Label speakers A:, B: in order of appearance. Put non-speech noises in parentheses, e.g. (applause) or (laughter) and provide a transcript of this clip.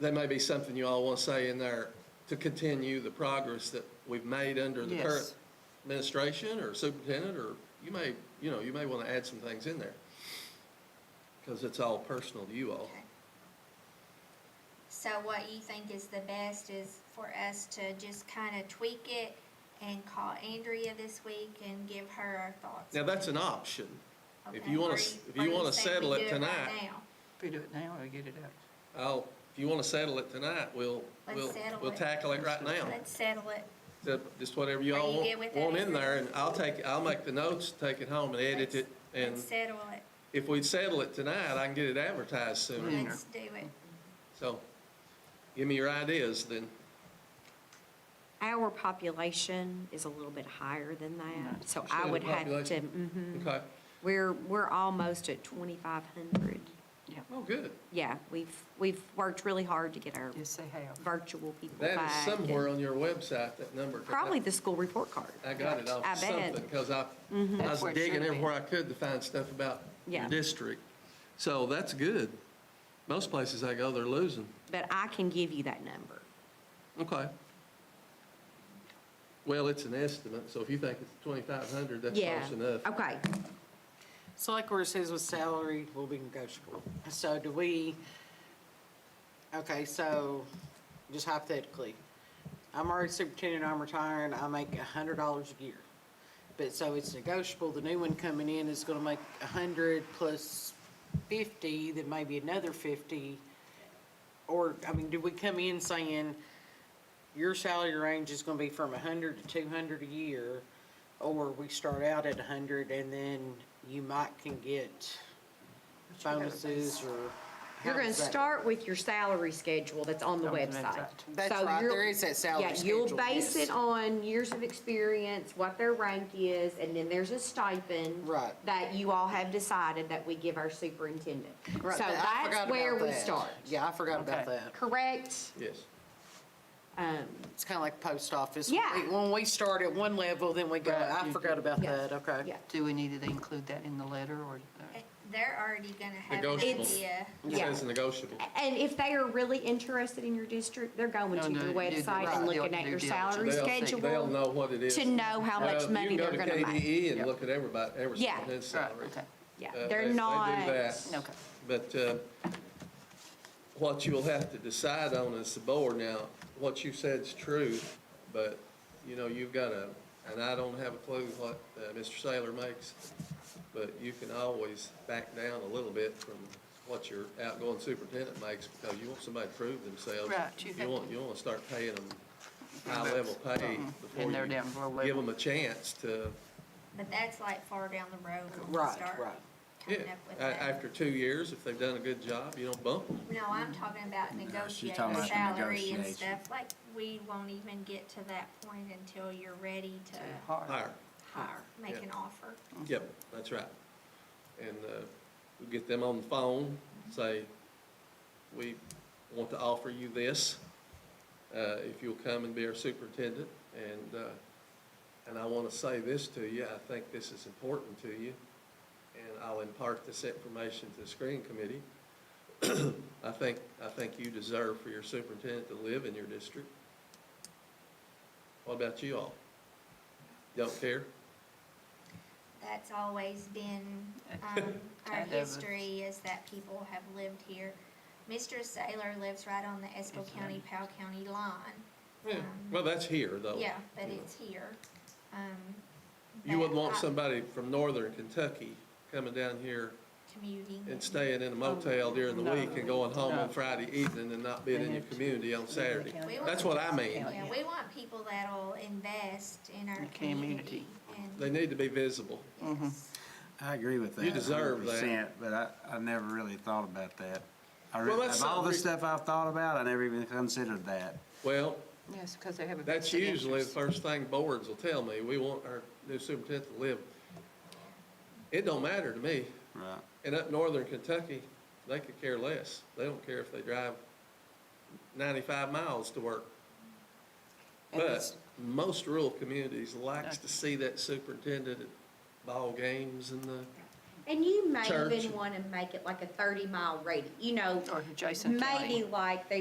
A: there may be something you all want to say in there to continue the progress that we've made under the
B: Yes.
A: current administration or superintendent, or you may, you know, you may want to add some things in there. Because it's all personal to you all.
C: Okay. So what you think is the best is for us to just kind of tweak it and call Andrea this week and give her our thoughts?
A: Now, that's an option. If
C: Okay,
A: you want
C: or
A: to, if
C: or
A: you want to
C: think we
A: settle
C: do
A: it
C: right
A: tonight,
C: now?
B: If we do it now, we get it out.
A: I'll, if you want to settle it tonight, we'll,
C: Let's
A: we'll,
C: settle
A: we'll
C: it.
A: tackle it right now.
C: Let's settle it.
A: So, Just whatever you
C: Are
A: all
C: you
A: want,
C: good with that,
A: want in
C: Andrew?
A: there, and I'll take, I'll make the notes, take it home and edit it. And
C: Let's settle it.
A: if we settle it tonight, I can get it advertised soon.
B: Mm.
C: Let's do it.
A: So give me your ideas then.
D: Our population is a little bit higher than that, so I
A: Percentage
D: would have to,
A: Mm-hmm. population.
D: mhm.
A: Okay.
D: we're, we're almost at 2,500.
A: Oh, good.
D: Yeah, we've, we've worked really hard to get our
B: Yes, they have.
D: virtual people back.
A: That is
D: and
A: somewhere on your website, that number. 'cause I-
D: Probably the school report card.
A: I got it
D: I
A: off
D: bet. Mm-hmm.
A: something, because I, I was
B: That's where it should
A: digging
B: be.
A: everywhere I could to find stuff about your
D: Yeah.
A: district. So that's good. Most places I go, they're losing.
D: But I can give you that number.
A: Okay. Well, it's an estimate, so if you think it's 2,500, that's
D: Yeah.
A: close enough.
D: Okay,
B: So like where it says with salary will be negotiable. So do we, okay, so just hypothetically, I'm already superintendent, I'm retiring, I make a hundred dollars a year. But so it's negotiable, the new one coming in is gonna make a hundred plus fifty, then maybe another fifty. Or, I mean, do we come in saying your salary range is gonna be from a hundred to two hundred a year? Or we start out at a hundred and then you might can get bonuses or.
D: you're
B: how
D: going to
B: does that-
D: start with your salary schedule that's on the website.
B: That's
D: So
B: right,
D: you're-
B: there is that salary
D: Yeah,
B: schedule.
D: you'll base
B: yes.
D: it on years of experience, what their rank is, and then there's a stipend.
B: Right.
D: That you all have decided that we give our superintendent.
B: Right,
D: So
B: but I forgot
D: that's where
B: about
D: we
B: that.
D: start.
B: Yeah, I forgot about that.
D: Correct?
A: Yes.
D: Um,
B: It's kind of like post office.
D: Yeah.
B: We- When we start at one level, then we go, I forgot about
D: Yes.
B: that, okay.
D: Yeah.
E: Do we need to include that in the letter or?
C: Eh, They're already gonna have an
A: Negotiable.
C: idea.
A: It says negotiable.
D: And if they are really interested in your district, they're going
E: No,
D: to
E: no,
D: your
E: you did
D: website
E: right.
D: and looking
E: They'll
D: at
E: do
D: your
E: diligence.
D: salary
A: They'll- They'll
D: schedule
A: know what it is.
D: to know how much
A: Well,
D: money they're
A: You
D: gonna
A: can go to
D: make.
A: KDE and look at everybody, every
D: Yeah.
A: single
E: Right,
A: salary.
E: okay.
D: Yeah,
A: Uh, they- they
D: they're
A: do
D: not.
A: that.
E: Okay.
A: But uh, what you'll have to decide on is the board now, what you said's true, but, you know, you've got a, and I don't have a clue what uh, Mr. Saylor makes, but you can always back down a little bit from what your outgoing superintendent makes, because you want somebody to prove themselves.
E: Right, you have
A: want,
E: to-
A: you want to start paying them high-level pay before
E: Mm-hmm. And they're down to
A: you
E: low
A: give
E: level.
A: them a chance to,
C: But that's like far down the road when we
B: Right,
C: start
B: right.
A: yeah,
C: coming up with
A: a-
C: that.
A: after two years, if they've done a good job, you don't bump them.
C: No, I'm talking about negotiating
F: talking about the
C: salary and
F: negotiation.
C: stuff, like, we won't even get to that point until you're ready to
E: Too hard.
A: Higher,
C: hire, make
A: Yeah.
C: an offer.
A: yep, that's right. And, uh, we get them on the phone, say, we want to offer you this, uh, if you'll come and be our superintendent, and, uh, and I wanna say this to you, I think this is important to you, and I'll impart this information to the screening committee. (clears throat) I think, I think you deserve for your superintendent to live in your district. What about you all? Don't care?
C: That's always been, um, (laughs) our
E: Kind of.
C: history is that people have lived here. Mr. Saylor lives right on the Esco County, Powell County line.
A: Yeah, Hmm. well, that's here, though.
C: Yeah, but
A: Oh, Yeah.
C: it's here. Um,
A: You wouldn't
C: but
A: want
C: I-
A: somebody from northern Kentucky coming down here
C: Commuting.
A: and staying in a motel during the
E: No.
A: week and going home on
E: No.
A: Friday evening and not being in your community on Saturday.
C: We want-
A: That's what I mean.
C: Yeah, we want people that'll invest in our
E: Your
C: community.
E: community.
A: They Mm-hmm.
C: And
A: need to be visible.
C: yes.
F: I agree with that.
A: You deserve that.
F: 100%, But I, I never really thought about that. I re-
A: Well, that's
F: Of all the
A: something-
F: stuff I've thought about, I never even considered that.
A: Well,
E: Yes, because they have a.
A: that's
E: vested
A: usually the
E: interest.
A: first thing boards will tell me. We want our new superintendent to live. It don't matter to me.
F: Right.
A: And up northern Kentucky, they could care less. They don't care if they drive ninety-five miles to work.
B: And
A: But
B: it's-
A: most rural communities likes to see that superintendent at ball games and the,
D: And you may
A: Church.
D: even want to make it like a 30-mile radius, you know,
E: Or adjacent county.
D: maybe like they